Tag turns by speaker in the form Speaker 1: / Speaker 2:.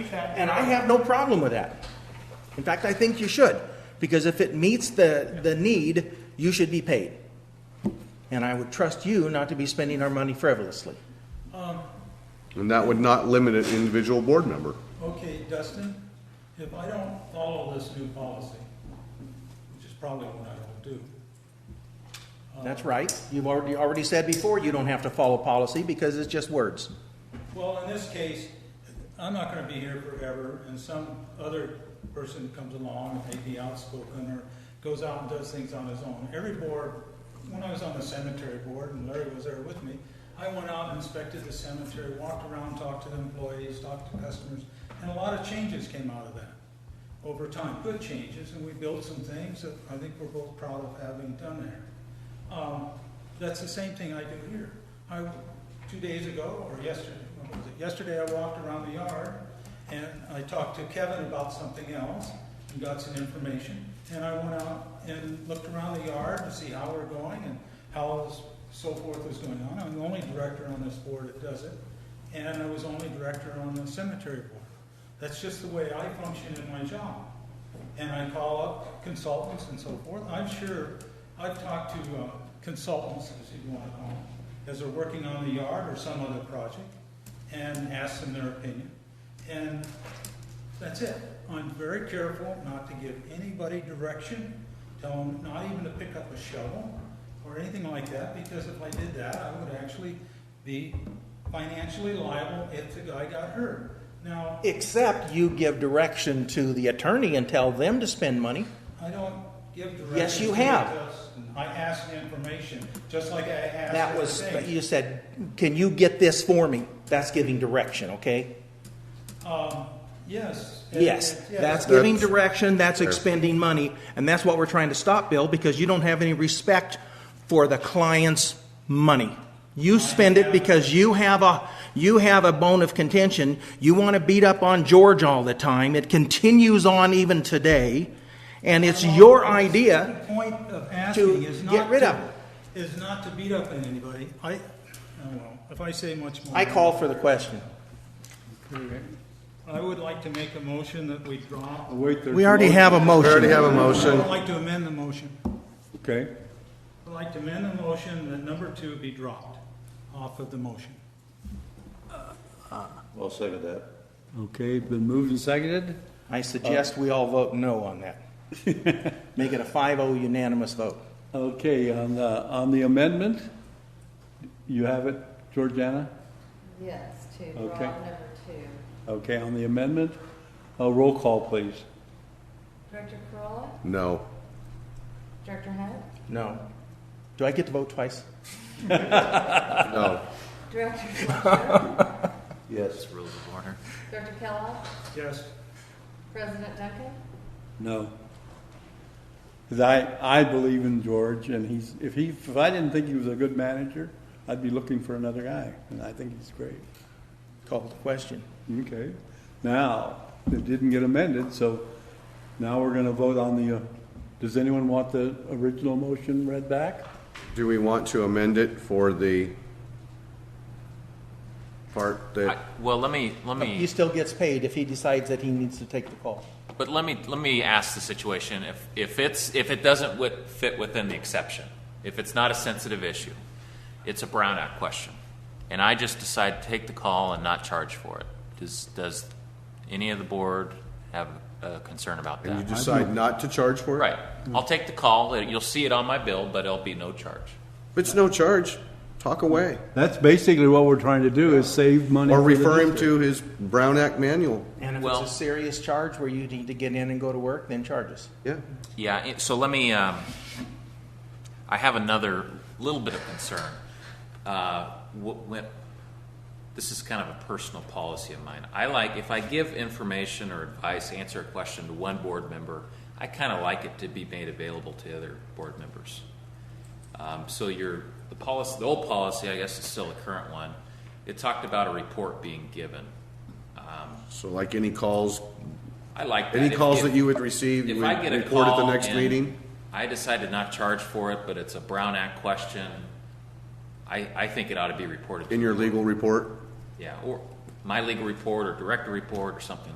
Speaker 1: And I have no problem with that. In fact, I think you should, because if it meets the, the need, you should be paid. And I would trust you not to be spending our money frivolously.
Speaker 2: And that would not limit an individual board member.
Speaker 3: Okay, Dustin, if I don't follow this new policy, which is probably what I will do,
Speaker 1: That's right. You've already, already said before, you don't have to follow policy because it's just words.
Speaker 3: well, in this case, I'm not gonna be here forever, and some other person comes along, and maybe outspoken, or goes out and does things on his own. Every board, when I was on the cemetery board, and Larry was there with me, I went out and inspected the cemetery, walked around, talked to the employees, talked to customers, and a lot of changes came out of that. over time, good changes, and we built some things that I think we're both proud of having done there. Um, That's the same thing I do here. I, two days ago, or yesterday, when was it? Yesterday, I walked around the yard, and I talked to Kevin about something else, and got some information. And I went out and looked around the yard to see how we're going and how s- so forth was going on. I'm the only director on this board that does it, and I was only director on the cemetery board. That's just the way I function in my job. And I call up consultants and so forth. I'm sure, I've talked to uh, consultants, as you want to call them, as they're working on the yard or some other project, and asked them their opinion. And that's it. I'm very careful not to give anybody direction, tell them not even to pick up a shovel or anything like that, because if I did that, I would actually be financially liable if the guy got hurt. Now,
Speaker 1: Except you give direction to the attorney and tell them to spend money.
Speaker 3: I don't give directions.
Speaker 1: Yes, you
Speaker 3: to
Speaker 1: have.
Speaker 3: Justin. I ask the information, just like I asked.
Speaker 1: That was,
Speaker 3: everything.
Speaker 1: you said, can you get this for me? That's giving direction, okay?
Speaker 3: Um, yes.
Speaker 1: Yes,
Speaker 3: And-
Speaker 1: that's
Speaker 2: good.
Speaker 1: giving direction, that's expending money, and that's what we're trying to stop, Bill, because you don't have any respect for the client's money. You spend it because you have a, you have a bone of contention. You want to beat up on George all the time. It continues on even today, and it's your idea.
Speaker 3: The point of asking is not.
Speaker 1: get rid
Speaker 3: to-
Speaker 1: of it.
Speaker 3: Is not to beat up on anybody. I, I don't know, if I say much more.
Speaker 1: I call for the question.
Speaker 3: I would like to make a motion that we draw, I
Speaker 4: Wait, there's.
Speaker 1: We already have a
Speaker 2: We already
Speaker 1: motion.
Speaker 2: have a motion.
Speaker 3: would like to amend the motion.
Speaker 4: Okay,
Speaker 3: I'd like to amend the motion that number two be dropped off of the motion.
Speaker 5: I'll second that.
Speaker 4: okay, been moved and seconded.
Speaker 1: I suggest we all vote no on that. Make it a 5-0 unanimous vote.
Speaker 4: Okay, on the, on the amendment, you have it, Georgiana?
Speaker 6: Yes, to draw
Speaker 4: Okay.
Speaker 6: number two.
Speaker 4: Okay, on the amendment, a roll call, please.
Speaker 6: Director Corolla,
Speaker 2: No.
Speaker 6: Director Hunt,
Speaker 1: No. Do I get to vote twice?
Speaker 2: No.
Speaker 6: Director Fletcher,
Speaker 5: Yes. Rules of order.
Speaker 6: Director Kellogg,
Speaker 3: Yes.
Speaker 6: President Duncan,
Speaker 4: No. Because I, I believe in George, and he's, if he, if I didn't think he was a good manager, I'd be looking for another guy, and I think he's great.
Speaker 1: Call the question.
Speaker 4: Okay, now, it didn't get amended, so now we're gonna vote on the, uh, does anyone want the original motion read back?
Speaker 2: Do we want to amend it for the part
Speaker 7: I-
Speaker 2: that,
Speaker 7: Well, let me, let
Speaker 1: He
Speaker 7: me,
Speaker 1: still gets paid if he decides that he needs to take the call.
Speaker 7: but let me, let me ask the situation, if, if it's, if it doesn't wit- fit within the exception, if it's not a sensitive issue, it's a Brown Act question, and I just decide to take the call and not charge for it, does, does any of the board have a concern about
Speaker 2: and you
Speaker 7: that?
Speaker 2: decide not to charge for it?
Speaker 7: Right, I'll take the call, you'll see it on my bill, but it'll be no charge.
Speaker 2: It's no charge. Talk away.
Speaker 4: That's basically what we're trying to do, is save money.
Speaker 2: Or
Speaker 4: for the
Speaker 2: refer him
Speaker 4: district.
Speaker 2: to his Brown Act manual.
Speaker 1: And if
Speaker 7: Well-
Speaker 1: it's a serious charge where you need to get in and go to work, then charge us.
Speaker 2: Yeah.
Speaker 7: Yeah, it- so let me, um, I have another little bit of concern. Uh, wh- when- This is kind of a personal policy of mine. I like, if I give information or advice, answer a question to one board member, I kind of like it to be made available to other board members. Um, so your, the policy, the old policy, I guess is still the current one, it talked about a report being given.
Speaker 2: So like any calls,
Speaker 7: I like that.
Speaker 2: any
Speaker 7: If-
Speaker 2: calls
Speaker 7: if-
Speaker 2: that you would receive, you
Speaker 7: If I
Speaker 2: would
Speaker 7: get a
Speaker 2: report at
Speaker 7: call
Speaker 2: the next
Speaker 7: and
Speaker 2: meeting?
Speaker 7: I decide to not charge for it, but it's a Brown Act question, I, I think it ought to be reported.
Speaker 2: In your legal report?
Speaker 7: Yeah, or my legal report or director report or something